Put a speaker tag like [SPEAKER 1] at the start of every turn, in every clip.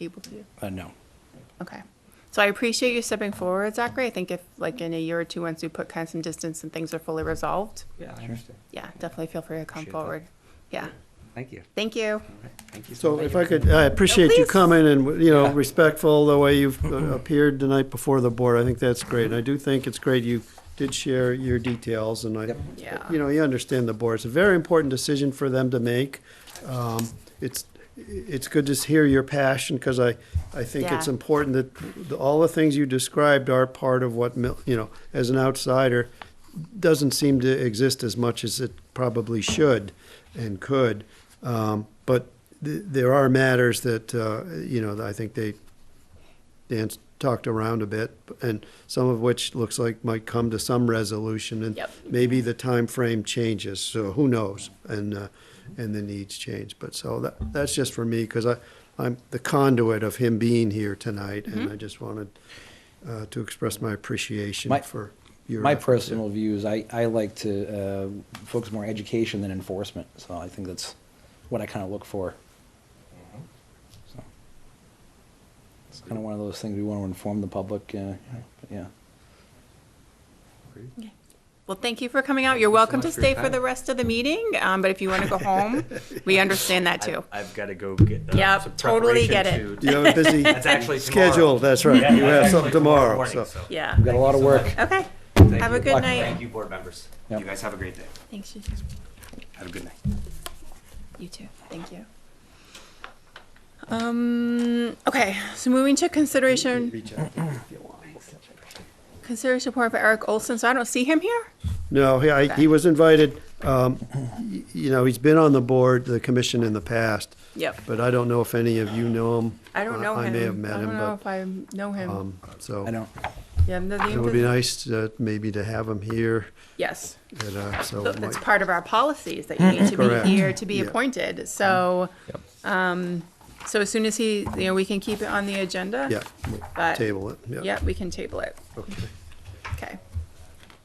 [SPEAKER 1] able to?
[SPEAKER 2] Uh, no.
[SPEAKER 1] Okay. So I appreciate you stepping forward, Zachary. I think if, like, in a year or two, once we put kind of some distance and things are fully resolved,
[SPEAKER 3] Yeah, I understand.
[SPEAKER 1] yeah, definitely feel free to come
[SPEAKER 3] Appreciate that.
[SPEAKER 1] forward. Yeah,
[SPEAKER 3] Thank you.
[SPEAKER 1] thank you.
[SPEAKER 3] All right. Thank you.
[SPEAKER 4] So
[SPEAKER 3] much.
[SPEAKER 4] if I could, I appreciate you
[SPEAKER 1] please.
[SPEAKER 4] coming and, you know, respectful the way you've uh, appeared the night before the board. I think that's great. And I do think it's great you did share your details and I,
[SPEAKER 3] Yep.
[SPEAKER 1] Yeah.
[SPEAKER 4] you know, you understand the board. It's a very important decision for them to make. Um, It's, it's good to hear your passion because I, I think it's
[SPEAKER 1] Yeah.
[SPEAKER 4] important that the- all the things you described are part of what, Mil- you know, as an outsider, doesn't seem to exist as much as it probably should and could. Um, But th- there are matters that, uh, you know, that I think they, Dan's talked around a bit, and some of which looks like might come to some resolution, and
[SPEAKER 1] Yep.
[SPEAKER 4] maybe the time frame changes, so who knows? And, uh, and the needs change, but so that, that's just for me, because I, I'm the conduit of him being here tonight, and I just wanted uh, to express my appreciation
[SPEAKER 2] My-
[SPEAKER 4] for your.
[SPEAKER 2] My
[SPEAKER 4] effort there.
[SPEAKER 2] personal views, I, I like to uh, focus more on education than enforcement, so I think that's what I kind of look for.
[SPEAKER 3] Mm-hmm.
[SPEAKER 2] So It's kind of one of those things we want to inform the public, uh, but yeah.
[SPEAKER 1] Well, thank you for coming out. You're
[SPEAKER 3] Thank you so
[SPEAKER 1] welcome to
[SPEAKER 3] much for your
[SPEAKER 1] stay for
[SPEAKER 3] time.
[SPEAKER 1] the rest of the meeting, um, but if you want to go home, we understand that too.
[SPEAKER 5] I've got to go get. uh,
[SPEAKER 1] Yep,
[SPEAKER 5] some
[SPEAKER 1] totally
[SPEAKER 5] preparation
[SPEAKER 1] get it.
[SPEAKER 5] to-
[SPEAKER 4] You have a busy
[SPEAKER 5] That's actually tomorrow.
[SPEAKER 4] schedule, that's right,
[SPEAKER 5] Yeah, that's
[SPEAKER 4] you have
[SPEAKER 5] actually
[SPEAKER 4] something tomorrow,
[SPEAKER 5] morning,
[SPEAKER 4] so.
[SPEAKER 1] Yeah.
[SPEAKER 2] We've got a lot of
[SPEAKER 5] so
[SPEAKER 2] work.
[SPEAKER 5] much.
[SPEAKER 1] Okay.
[SPEAKER 5] Thank
[SPEAKER 1] Have
[SPEAKER 5] you.
[SPEAKER 1] a good
[SPEAKER 2] Luck.
[SPEAKER 1] night.
[SPEAKER 5] Thank you, board members.
[SPEAKER 2] Yep.
[SPEAKER 5] You guys have a great day.
[SPEAKER 1] Thanks, you
[SPEAKER 5] Have a good night.
[SPEAKER 1] You too. Thank you. Um, okay, so moving to consideration, consideration report for Eric Olson. So I don't see him here?
[SPEAKER 4] No, he, I,
[SPEAKER 1] Okay.
[SPEAKER 4] he was invited, um, y- you know, he's been on the board, the commission in the past,
[SPEAKER 1] Yep.
[SPEAKER 4] but I don't know if any of you know him.
[SPEAKER 1] I don't know him.
[SPEAKER 4] I may have met
[SPEAKER 1] I don't
[SPEAKER 4] him,
[SPEAKER 1] know if
[SPEAKER 4] but,
[SPEAKER 1] I know him.
[SPEAKER 4] um, so.
[SPEAKER 2] I don't,
[SPEAKER 1] Yeah, the
[SPEAKER 4] It
[SPEAKER 1] name
[SPEAKER 4] would be
[SPEAKER 1] doesn't-
[SPEAKER 4] nice, uh, maybe to have him here,
[SPEAKER 1] Yes,
[SPEAKER 4] and, uh, so. it
[SPEAKER 1] that's
[SPEAKER 4] might-
[SPEAKER 1] part of our policies that you need to
[SPEAKER 4] Correct.
[SPEAKER 1] be here to be
[SPEAKER 4] Yeah. Mm-hmm.
[SPEAKER 1] appointed. So, um, so as soon as he, you know, we can keep it on the agenda.
[SPEAKER 4] Yeah, we'll
[SPEAKER 1] But-
[SPEAKER 4] table it, yeah.
[SPEAKER 1] Yeah, we can table it.
[SPEAKER 4] Okay.
[SPEAKER 1] Okay.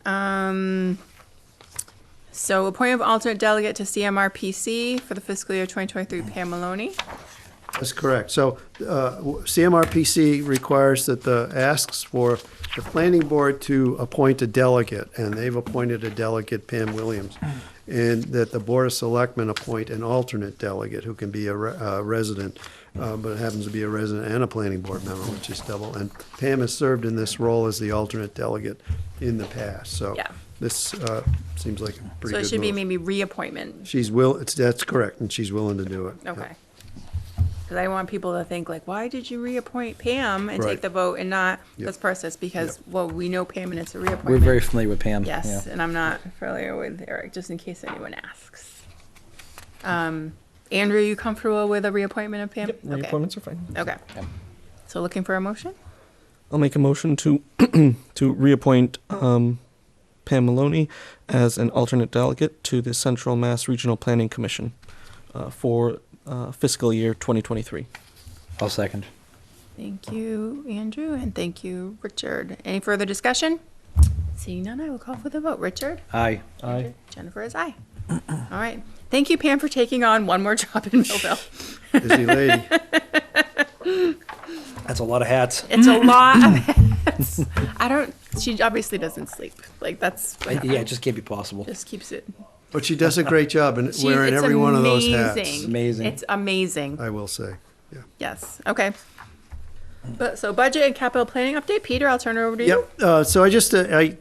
[SPEAKER 1] Um, so appointment of alternate delegate to CMRPC for the fiscal year 2023, Pam Maloney.
[SPEAKER 4] That's correct. So uh, w- CMRPC requires that the, asks for the planning board to appoint a delegate, and they've appointed a delegate, Pam Williams, and that the Board of Selectmen appoint an alternate delegate who can be a re- uh, resident, uh, but happens to be a resident and a planning board member, which is double. And Pam has served in this role as the alternate delegate in the past, so
[SPEAKER 1] Yeah.
[SPEAKER 4] this uh, seems like a
[SPEAKER 1] So
[SPEAKER 4] pretty good
[SPEAKER 1] it should be
[SPEAKER 4] move.
[SPEAKER 1] maybe reappointment.
[SPEAKER 4] She's will, it's- that's correct, and she's willing to do it. Yeah.
[SPEAKER 1] Okay. Because I want people to think like, why did you reappoint Pam and take
[SPEAKER 4] Right.
[SPEAKER 1] the vote and not
[SPEAKER 4] Yep.
[SPEAKER 1] this process? Because, well, we know Pam and it's a reappointment.
[SPEAKER 2] we're very familiar with Pam.
[SPEAKER 1] Yes,
[SPEAKER 2] yeah.
[SPEAKER 1] and I'm not familiar with Eric, just in case anyone asks. Um, Andrew, you comfortable with a reappointment of Pam?
[SPEAKER 6] Yep,
[SPEAKER 1] Okay.
[SPEAKER 6] reappointments are fine.
[SPEAKER 1] Okay.
[SPEAKER 2] Yep.
[SPEAKER 1] So looking for a motion?
[SPEAKER 6] I'll make a motion to to reappoint um, Pam Maloney as an alternate delegate to the Central Mass Regional Planning Commission uh, for uh, fiscal year 2023.
[SPEAKER 2] I'll second.
[SPEAKER 1] Thank you, Andrew, and thank you, Richard. Any further discussion? Seeing none, I will call for the vote. Richard?
[SPEAKER 2] Aye.
[SPEAKER 6] Aye.
[SPEAKER 1] Jennifer is aye. All right. Thank you, Pam, for taking on one more job in Millville.
[SPEAKER 4] Busy lady.
[SPEAKER 2] That's a lot of hats.
[SPEAKER 1] It's a lot of I don't, she obviously doesn't sleep. Like, that's,
[SPEAKER 2] I- Yeah, it just can't be possible.
[SPEAKER 1] just keeps it.
[SPEAKER 4] But she does a great job in
[SPEAKER 1] She-
[SPEAKER 4] wearing
[SPEAKER 1] it's
[SPEAKER 4] every one of those hats. Uh,
[SPEAKER 1] amazing.
[SPEAKER 2] Amazing.
[SPEAKER 1] It's amazing.
[SPEAKER 4] I will say. Yeah.
[SPEAKER 1] Yes, okay. But, so budget and capital planning update. Peter, I'll turn it over to you.
[SPEAKER 4] Yep. Uh, so I just uh, I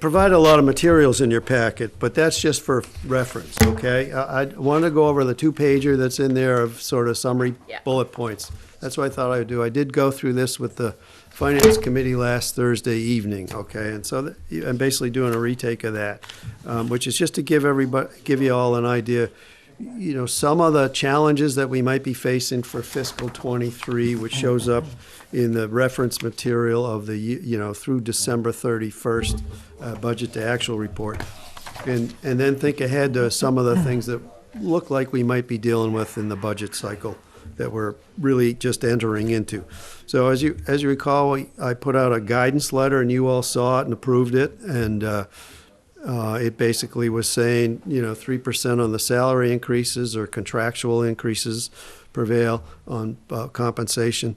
[SPEAKER 4] provide a lot of materials in your packet, but that's just for reference. Okay. I, I want to go over the two pager that's in there of sort of summary
[SPEAKER 1] Yeah.
[SPEAKER 4] bullet points. That's what I thought I would do. I did go through this with the finance committee last Thursday evening. Okay, and so th- I'm basically doing a retake of that, um, which is just to give everybody, give you all an idea. you know, some of the challenges that we might be facing for fiscal '23, which shows up in the reference material of the, y- you know, through December 31st, uh, budget to actual report. And, and then think ahead to some of the things that look like we might be dealing with in the budget cycle that we're really just entering into. So as you, as you recall, I- I put out a guidance letter and you all saw it and approved it. And, uh, uh, it basically was saying, you know, three percent on the salary increases or contractual increases, prevail on uh, compensation